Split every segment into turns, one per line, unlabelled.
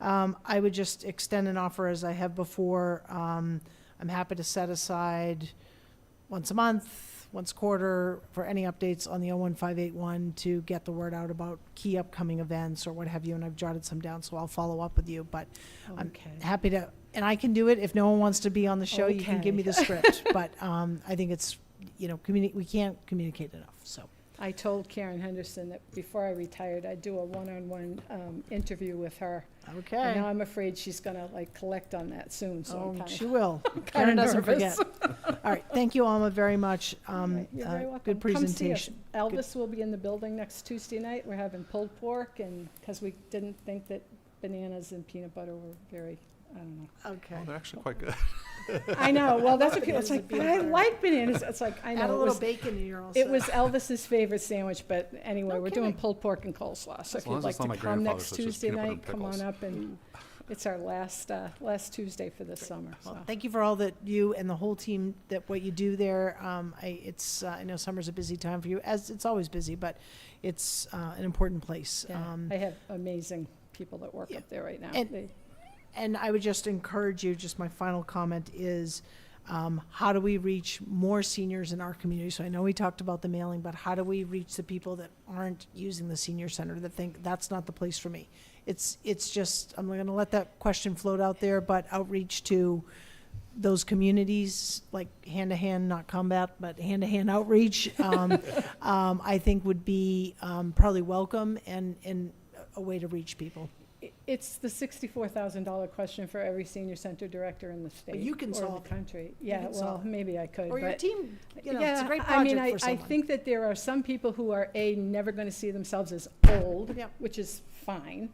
Um, I would just extend an offer as I have before. Um, I'm happy to set aside once a month, once a quarter, for any updates on the 01581 to get the word out about key upcoming events or what have you, and I've jotted some down, so I'll follow up with you, but I'm
Okay.
happy to, and I can do it, if no one wants to be on the show, you can give me the
Okay.
script, but um, I think it's, you know, communi, we can't communicate enough, so.
I told Karen Henderson that before I retired, I'd do a one-on-one um, interview with her. And now
Okay.
I'm afraid she's gonna like collect on that soon, so I'm
Oh,
kind of.
she will. Karen doesn't
nervous.
forget. All right, thank you, Alma, very much. Um,
You're
uh,
very welcome.
Good
Come see us.
presentation.
Elvis will be in the building next Tuesday night. We're having pulled pork and, because we didn't think that bananas and peanut butter were very, I don't know.
Okay.
Well, Oh, they're actually quite good.
I know, well, that's what people,
Bananas
it's
and
like, but
peanut
I
butter.
like bananas. It's like, I
Add a
know, it
little
was,
bacon and you're all set.
it was Elvis's favorite sandwich, but anyway,
No
we're doing
kidding.
pulled pork and coleslaw. So
As
if
long
you'd
as
like
it's not
to
my
come next
grandfather's, it's just
Tuesday
peanut butter
night,
and
come on
pickles.
up and, it's our last, uh, last Tuesday for the summer, so.
Well, thank you for all that you and the whole team, that what you do there. Um, I, it's, uh, I know summer's a busy time for you, as it's always busy, but it's, uh, an important place.
Yeah,
Um,
I have amazing people that work
yeah.
up there right now.
And-
They-
And I would just encourage you, just my final comment is, um, how do we reach more seniors in our community? So I know we talked about the mailing, but how do we reach the people that aren't using the senior center that think that's not the place for me? It's, it's just, I'm gonna let that question float out there, but outreach to those communities, like hand-to-hand, not combat, but hand-to-hand outreach, um, um, I think would be, um, probably welcome and, and a way to reach people.
i- It's the sixty-four thousand dollar question for every senior center director in the state.
you can
Or
solve
the
it.
country. Yeah,
can
well,
solve it.
maybe I could,
Or your
but.
team, you know,
yeah,
it's a great
I mean,
project
I-
for someone.
I think that there are some people who are, A, never gonna see themselves as old,
Yep.
which is fine.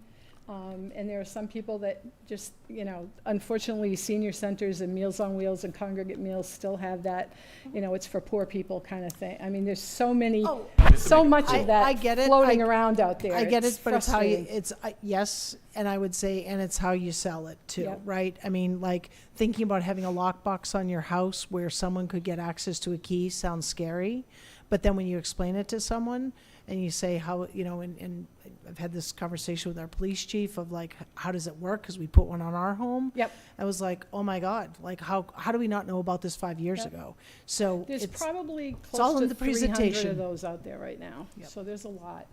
Um, and there are some people that just, you know, unfortunately, senior centers and Meals on Wheels and congregate meals still have that, you know, it's for poor people kind of thing. I mean, there's so many,
Oh,
so much
I-
of that
I get it.
floating
I-
around out there.
I get it, but it's how
frustrating.
you, it's, I- yes, and I would say, and it's how you sell it too,
Yep.
right? I mean, like, thinking about having a lockbox on your house where someone could get access to a key sounds scary. But then when you explain it to someone and you say how, you know, and, and I've had this conversation with our police chief of like, how does it work? Because we put one on our home.
Yep.
I was like, oh my God, like, how, how do we not know about this five years
Yep.
ago? So
There's
it's,
probably
all
close
in
to
the
three hundred
presentation.
of those out there right now,
Yep.
so there's a lot.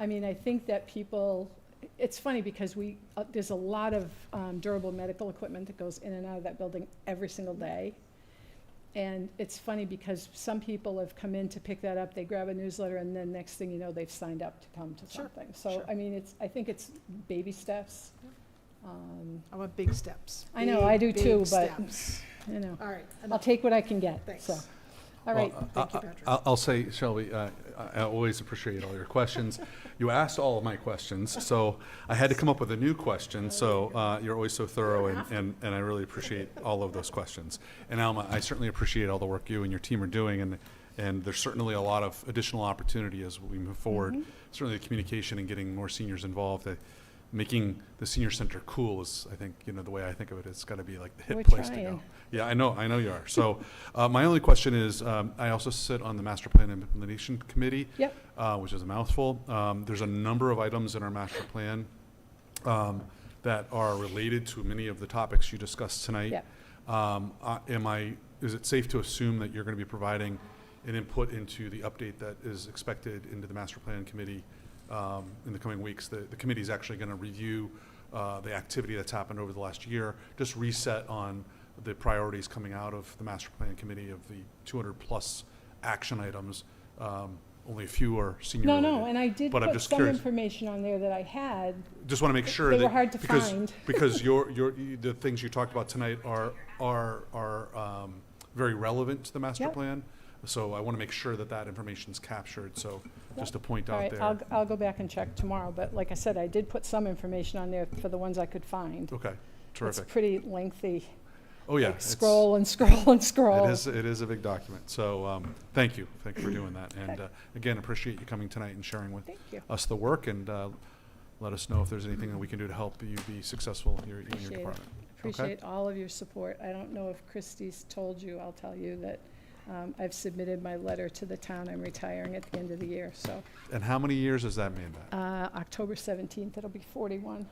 I mean, I think that people, it's funny because we, uh, there's a lot of um, durable medical equipment that goes in and out of that building every single day. And it's funny because some people have come in to pick that up, they grab a newsletter, and then next thing you know, they've signed up to come to
Sure,
something. So,
sure.
I mean, it's, I think it's baby steps. Um,
I want big steps.
I know, I do
Big,
too,
big
but-
steps.
You know,
All right.
I'll
enough.
take what I can get,
Thanks.
so. All
Well,
right,
uh,
Thank you,
I- I-
Patrick.
I'll- I'll say, Shelby, uh, I I always appreciate all your questions. You asked all of my questions, so I had to come up with a new question, so uh, you're always so thorough, and- and and I really appreciate all of those questions. And Alma, I certainly appreciate all the work you and your team are doing, and and there's certainly a lot of additional opportunity as we move forward.
Mm-hmm.
Certainly, the communication and getting more seniors involved, uh, making the senior center cool is, I think, you know, the way I think of it, it's got to be like the
We're
hit place to
trying.
go. Yeah, I know, I know you are. So, uh, my only question is, um, I also sit on the Master Plan Implementation Committee.
Yep.
Uh, which is a mouthful. Um, there's a number of items in our master plan, um, that are related to many of the topics you discussed tonight.
Yep.
Um, uh, am I, is it safe to assume that you're gonna be providing an input into the update that is expected into the master plan committee, um, in the coming weeks? The, the committee's actually gonna review, uh, the activity that's happened over the last year, just reset on the priorities coming out of the master plan committee of the two hundred plus action items. Um, only a few are senior
No,
related.
no, and I did
But I'm
put
just
some
curious.
information on there that I had.
Just want to make sure
They
that.
were hard to
because-
find.
Because your, your, you- the things you talked about tonight are, are, are um, very relevant to the master
Yep.
plan. So I want to make sure that that information's captured, so just to point
All
out
right,
there.
I'll, I'll go back and check tomorrow, but like I said, I did put some information on there for the ones I could find.
Okay, Oh, terrific.
It's pretty lengthy,
Oh, yeah.
like
it's-
scroll and scroll and scroll.
It is, it is a big document, so, um, thank you, thank you for doing that. And, uh, again, appreciate you coming tonight and sharing with
Thank you.
us the work, and, uh, let us know if there's anything that we can do to help you be successful in your, in your
Appreciate it.
department. Okay?
Appreciate all of your support. I don't know if Christie's told you, I'll tell you that um, I've submitted my letter to the town. I'm retiring at the end of the year, so.
And how many years has that made that?
uh, October 17th, it'll be 41.